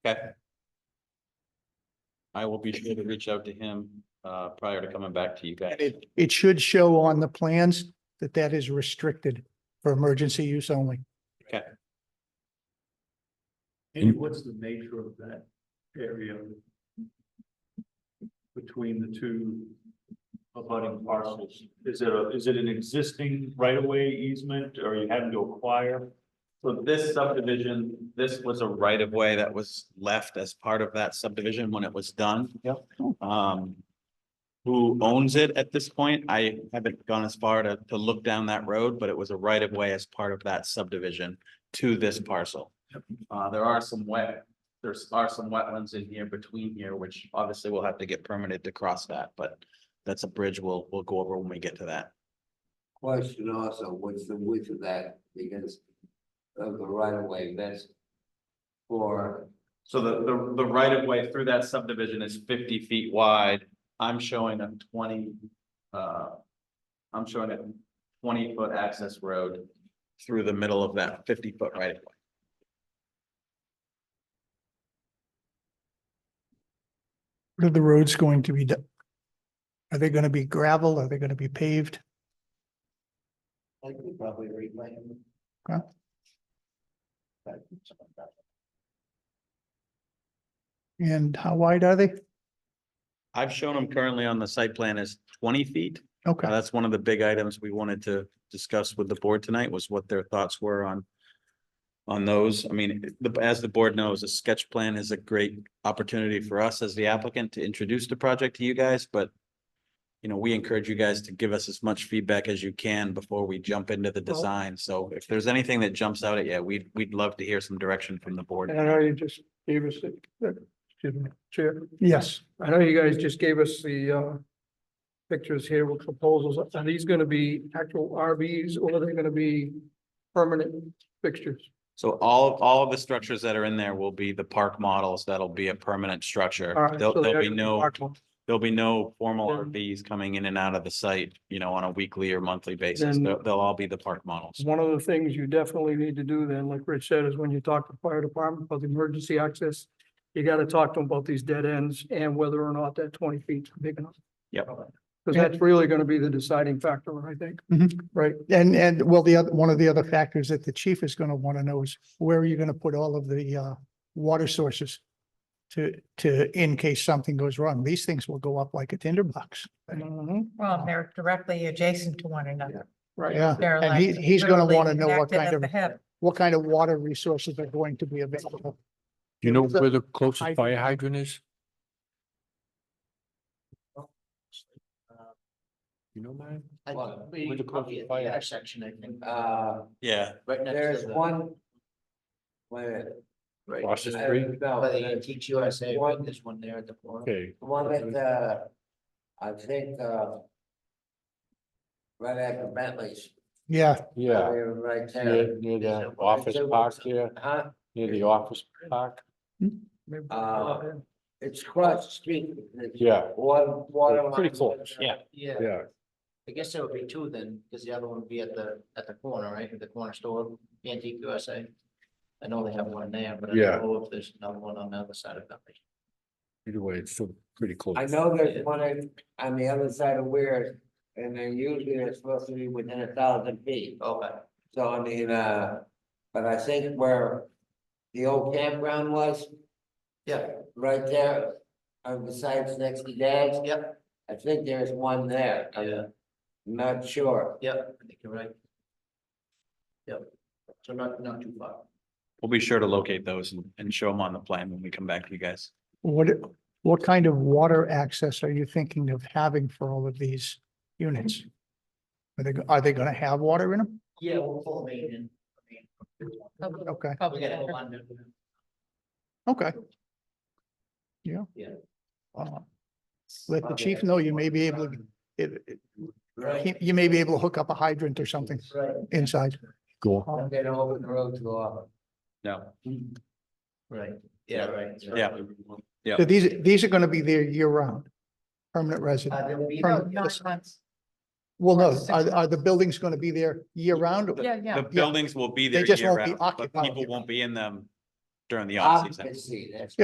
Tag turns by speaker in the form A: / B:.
A: I will be sure to reach out to him uh prior to coming back to you guys.
B: And it, it should show on the plans that that is restricted for emergency use only.
C: And what's the nature of that area? Between the two abutting parcels? Is it a, is it an existing right of way easement or you having to acquire?
A: So this subdivision, this was a right of way that was left as part of that subdivision when it was done. Yep. Um. Who owns it at this point? I haven't gone as far to to look down that road, but it was a right of way as part of that subdivision to this parcel. Uh, there are some wet, there's are some wetlands in here between here, which obviously we'll have to get permitted to cross that, but. That's a bridge we'll we'll go over when we get to that.
D: Question also, what's the width of that, because of the right of way, that's for,
A: So the, the, the right of way through that subdivision is fifty feet wide. I'm showing a twenty, uh, I'm showing a twenty foot access road through the middle of that fifty foot right of way.
B: What are the roads going to be? do- Are they going to be gravel? Are they going to be paved?
D: I could probably reclaim.
B: Okay. And how wide are they?
A: I've shown them currently on the site plan as twenty feet. Uh,
B: Okay,
A: That's one of the big items we wanted to discuss with the board tonight was what their thoughts were on. On those, I mean, the, as the board knows, a sketch plan is a great opportunity for us as the applicant to introduce the project to you guys, but. You know, we encourage you guys to give us as much feedback as you can before we jump into the design. So if there's anything that jumps out at you, we'd, we'd love to hear some direction from the board.
E: And I know you just gave us, the- excuse me, Chair,
B: yes,
E: I know you guys just gave us the uh pictures here with proposals. Are these gonna be actual RVs or are they gonna be permanent fixtures?
A: So all, all of the structures that are in there will be the park models. That'll be a permanent structure.
E: All right,
A: There'll,
E: so they
A: there'll be
E: are gonna
A: no.
E: marked ones.
A: There'll be no formal
E: Then-
A: RVs coming in and out of the site, you know, on a weekly or monthly basis.
E: Then-
A: They'll, they'll all be the park models.
E: One of the things you definitely need to do then, like Rich said, is when you talk to fire department about the emergency access, you gotta talk to them about these dead ends and whether or not that twenty feet's big enough.
A: Yep.
E: Because that's really gonna be the deciding factor, I think.
B: and, and well, the other, one of the other factors that the chief is going to want to know is where are you going to put all of the uh water sources? To, to, in case something goes wrong, these things will go up like a tinderbox.
F: Well, they're directly adjacent to one another.
E: Right.
B: Yeah,
F: They're
B: and he,
F: like
B: he's going to
F: literally
B: want to know what
F: connected
B: kind
F: at
B: of
F: the hip.
B: what kind of water resources are going to be available.
G: Do You know
B: So-
G: where the
B: I-
G: closest fire hydrant is? You know, man?
D: I-
G: Where
D: we- probably
G: the closest
D: at the
G: fire?
D: intersection, I think. Uh,
A: Yeah,
D: there's one. Where?
G: Across the street?
D: No, they teach USA, one, there's one there at the corner.
G: Okay,
D: The One that, uh, I think, uh. Right after Bentley's.
B: Yeah,
G: yeah,
D: We're Right there.
G: near, near
D: Is
G: the
D: it one or
G: office
D: two?
G: park there,
D: Huh?
G: near the office park.
D: Uh, It's across the street. There's
G: Yeah.
D: One,
G: Pretty
D: water. line.
G: close, yeah.
D: Yeah,
G: Yeah,
D: I guess there would be two then, because the other one would be at the, at the corner, right, at the corner store, antique USA. I know they have one there, but I
G: Yeah.
D: don't know if there's another one on the other side of Bentley.
G: either way, it's still pretty close.
D: I know there's one on, on the other side of Weir's, and then usually they're supposed to be within a thousand feet. Okay. So I mean, uh, but I think where the old campground was. Yeah. Right there, uh, besides next to Dad's. Yep. I think there's one there. Yeah. Not sure. Yep, I think you're right. Yep, so not, not too far.
A: we'll be sure to locate those and, and show them on the plan when we come back to you guys.
B: what, what kind of water access are you thinking of having for all of these units? Are they, go- are they gonna have water in them?
D: Yeah, we'll pull them in.
B: Okay,
F: Public interest.
B: okay. Yeah.
D: Yeah.
B: Uh, Let the chief know you may be able, to it- it-
D: Right.
B: he- you may be able to hook up a hydrant or something
D: Right.
B: inside.
G: Cool.
B: Um,
D: They don't open the road Hmm. too often.
A: No,
D: Right.
A: Yeah,
D: right.
A: yeah.
B: So these, these are gonna be there year round, permanent resident.
D: Uh, they'll be
B: From-
F: No,
D: there.
F: nine months.
B: Well, no,
F: Six
B: are, are the
F: months.
B: buildings gonna be there year round?
F: Yeah, yeah.
A: The buildings will be
B: They
A: there
B: just
A: year
B: won't be
A: round, but
B: occupied.
E: Ah,
A: people won't be in them during the off season.
D: Occupancy, that's